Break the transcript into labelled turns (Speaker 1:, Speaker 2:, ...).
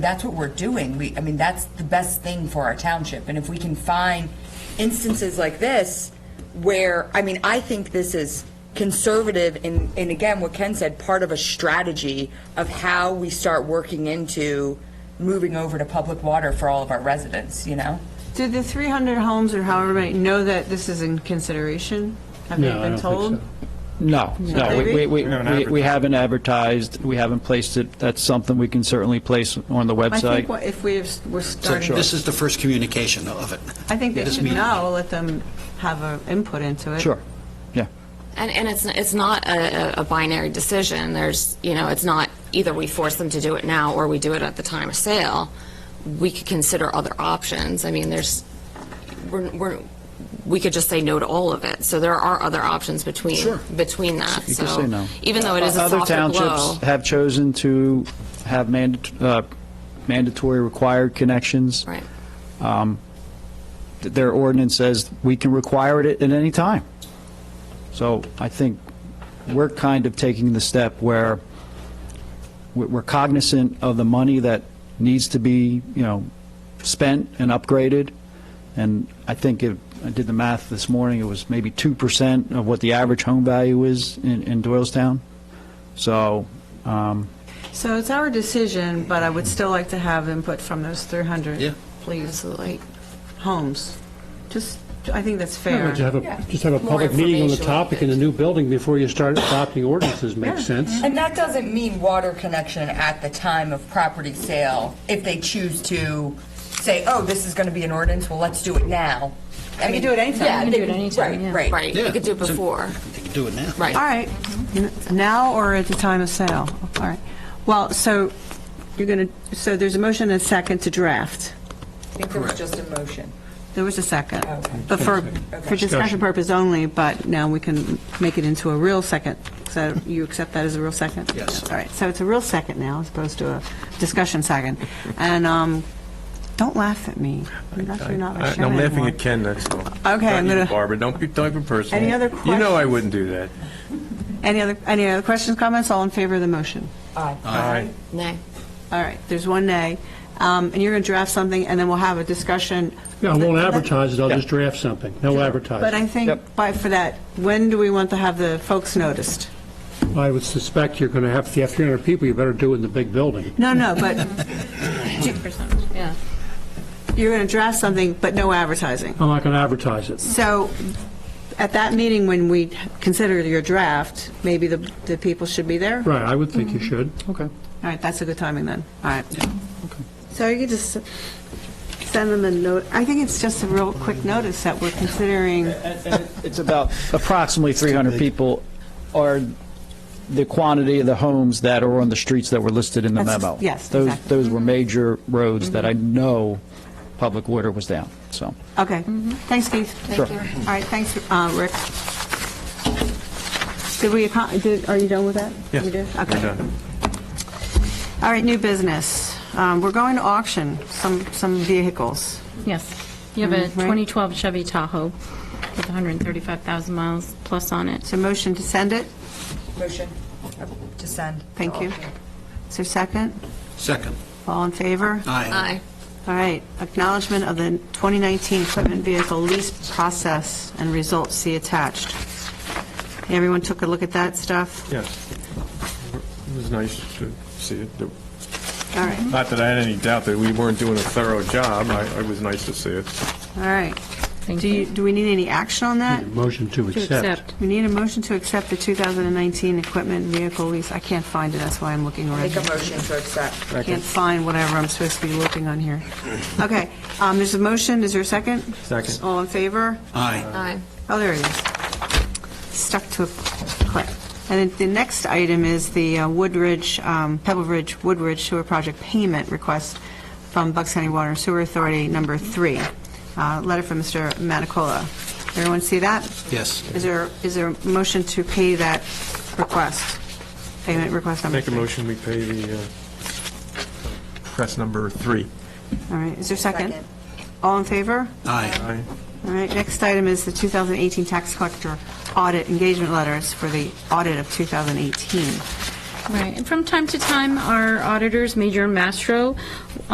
Speaker 1: that's what we're doing. We, I mean, that's the best thing for our township. And if we can find instances like this where, I mean, I think this is conservative and, and again, what Ken said, part of a strategy of how we start working into moving over to public water for all of our residents, you know?
Speaker 2: Do the 300 homes or however many know that this is in consideration? Have they
Speaker 3: No, I
Speaker 2: been
Speaker 3: don't think
Speaker 2: told?
Speaker 3: so.
Speaker 4: No, no, we- we, we,
Speaker 5: We haven't
Speaker 4: we- we
Speaker 5: advertised.
Speaker 4: haven't advertised, we haven't placed it, that's something we can certainly place on the
Speaker 2: I think
Speaker 4: website.
Speaker 2: what- if we, have- we're starting,
Speaker 6: This is the first communication of it.
Speaker 2: I think they
Speaker 6: This
Speaker 2: should
Speaker 6: meeting.
Speaker 2: know, let them have an input into it.
Speaker 4: Sure, yeah.
Speaker 7: And, and it's, it's not a, a- a binary decision. There's, you know, it's not either we force them to do it now or we do it at the time of sale. We could consider other options. I mean, there's, we're, we're, we could just say no to all of it. So there are other options between, between that.
Speaker 4: You can
Speaker 7: So
Speaker 4: say no.
Speaker 7: Even though it is a
Speaker 4: Other
Speaker 7: softer blow.
Speaker 4: townships have chosen to have mandat- uh, mandatory required connections.
Speaker 7: Right.
Speaker 4: Th- Their ordinance says we can require it at any time. So I think we're kind of taking the step where we- we're cognizant of the money that needs to be, you know, spent and upgraded. And I think if, I did the math this morning, it was maybe 2% of what the average home value is in in Doylestown. So, um,
Speaker 2: So it's our decision, but I would still like to have input from those 300.
Speaker 6: Yeah.
Speaker 2: Please,
Speaker 7: Absolutely.
Speaker 2: homes. Just, I think that's
Speaker 3: Yeah,
Speaker 2: fair.
Speaker 3: but Just have a, just have a public meeting on the topic in the new building before you start adopting ordinances, makes sense.
Speaker 1: And that doesn't mean water connection at the time of property sale, if they choose to say, oh, this is going to be an ordinance, well, let's do it now. I
Speaker 2: can
Speaker 1: mean,
Speaker 2: do it anytime.
Speaker 1: Yeah,
Speaker 2: You can
Speaker 1: they
Speaker 2: do it anytime, yeah.
Speaker 1: Right, right.
Speaker 7: Right. You could do it
Speaker 6: Yeah. So-
Speaker 7: before.
Speaker 6: You can do it now.
Speaker 7: Right.
Speaker 2: All right, N- now or at the time of sale? All right. Well, so you're going to, so there's a motion and a second to draft.
Speaker 1: I think there was just a motion.
Speaker 2: There was a second,
Speaker 1: Okay.
Speaker 2: but for, for discussion purpose only, but now we can make it into a real second. So you accept that as a real second?
Speaker 6: Yes.
Speaker 2: All right, so it's a real second now as opposed to a discussion second. And um, don't laugh at me. I'm not- you're not my
Speaker 5: I-
Speaker 2: show
Speaker 5: I'm laughing
Speaker 2: anymore.
Speaker 5: at Ken, that's all. Okay,
Speaker 2: I'm gonna-
Speaker 5: Barbara, don't be talking personal.
Speaker 2: Any other
Speaker 5: You know I
Speaker 2: questions?
Speaker 5: wouldn't do that.
Speaker 2: Any other, any other questions, comments? All in favor of the motion?
Speaker 5: Aye.
Speaker 7: Nay.
Speaker 2: All right, there's one nay. Um, And you're going to draft something, and then we'll have a discussion.
Speaker 3: Yeah, I won't advertise it, I'll just draft something, no
Speaker 2: But I
Speaker 3: advertising.
Speaker 2: think,
Speaker 4: Yep.
Speaker 2: by, for that, when do we want to have the folks noticed?
Speaker 3: I would suspect you're going to have, if you have 300 people, you better do it in the big building.
Speaker 2: No, no, but. yeah. You're going to draft something, but no advertising.
Speaker 3: I'm not going to advertise it.
Speaker 2: So at that meeting, when we consider your draft, maybe the, the people should be there?
Speaker 3: Right, I would think you should.
Speaker 4: okay.
Speaker 2: All right, that's a good timing then. All right. So you could just send them a note. I think it's just a real quick notice that we're considering.
Speaker 4: It's about approximately 300 people are the quantity of the homes that are on the streets that were listed in the
Speaker 2: That's-
Speaker 4: memo.
Speaker 2: yes,
Speaker 4: Those-
Speaker 2: exactly. Mm-hmm.
Speaker 4: Those were major roads that I know public water was down, so.
Speaker 2: Okay. Thanks, Keith.
Speaker 4: Sure.
Speaker 2: All right, thanks, uh, Rick. Did we, acco- did- are you done with that?
Speaker 5: Yes,
Speaker 2: We did?
Speaker 5: we're
Speaker 2: Okay.
Speaker 5: done.
Speaker 2: All right, new business. Um, We're going to auction some, some vehicles.
Speaker 8: Yes. You have a
Speaker 2: Mm, right.
Speaker 8: 2012 Chevy Tahoe with 135,000 miles plus on it.
Speaker 2: So motion to send it?
Speaker 1: Motion uh, to send.
Speaker 2: Thank you. Is there a second?
Speaker 6: Second.
Speaker 2: All in favor?
Speaker 6: Aye.
Speaker 7: Aye.
Speaker 2: All right, acknowledgement of the 2019 equipment vehicle lease process and results see attached. Everyone took a look at that stuff?
Speaker 5: Yes. It was nice to see it.
Speaker 2: All right,
Speaker 5: Not that I had any doubt that we weren't doing a thorough job. I, it was nice to see it.
Speaker 2: all right.
Speaker 8: Thank
Speaker 2: Do you, do we need any action on that?
Speaker 3: Motion to
Speaker 8: To
Speaker 3: accept.
Speaker 8: accept.
Speaker 2: We need a motion to accept the 2019 equipment vehicle lease. I can't find it, that's why I'm looking around.
Speaker 1: Make a motion to accept.
Speaker 2: I can't find whatever I'm supposed to be looking on here. Okay, um, there's a motion, is there a second?
Speaker 5: Second.
Speaker 2: All in favor?
Speaker 6: Aye.
Speaker 7: Aye.
Speaker 2: Oh, there it is. Stuck to a clip. And then the next item is the uh, Woodridge, um, Pebble Ridge, Woodridge Sewer Project Payment Request from Bucks County Water and Sewer Authority, number three. Uh, Letter from Mr. Matacola. Everyone see that?
Speaker 6: Yes.
Speaker 2: Is there, is there a motion to pay that request? Payment request number
Speaker 5: Make a
Speaker 2: three?
Speaker 5: motion, we pay the, uh, press number three.
Speaker 2: All right, is there a second?
Speaker 1: Second.
Speaker 2: All in favor?
Speaker 6: Aye.
Speaker 5: Aye.
Speaker 2: All right, next item is the 2018 tax collector audit engagement letters for the audit of 2018.
Speaker 8: Right, and from time to time, our auditors, Major and Mastro,